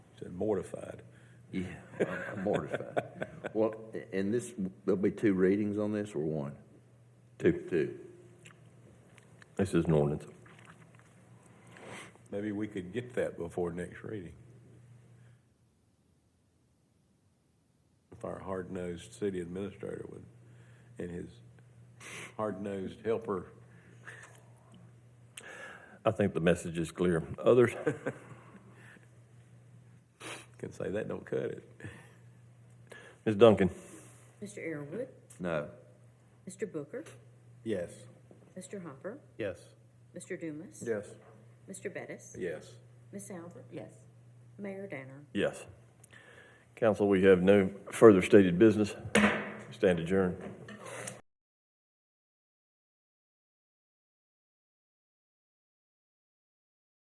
mortified. Yeah, I'm- I'm mortified. Well, a- and this, there'll be two readings on this or one? Two. Two. This is an ordinance. Maybe we could get that before next reading. If our hard-nosed city administrator would, and his hard-nosed helper, I think the message is clear. Others? can say that don't cut it. Ms. Duncan? Mr. Arrowood, No. Mr. Booker, Yes. Mr. Hopper, Yes. Mr. Dumas. Mr. Bettis. Yes. Miss Albert. Yes. Mayor Danner. Yes. Council, we have no further stated business. Stand adjourned.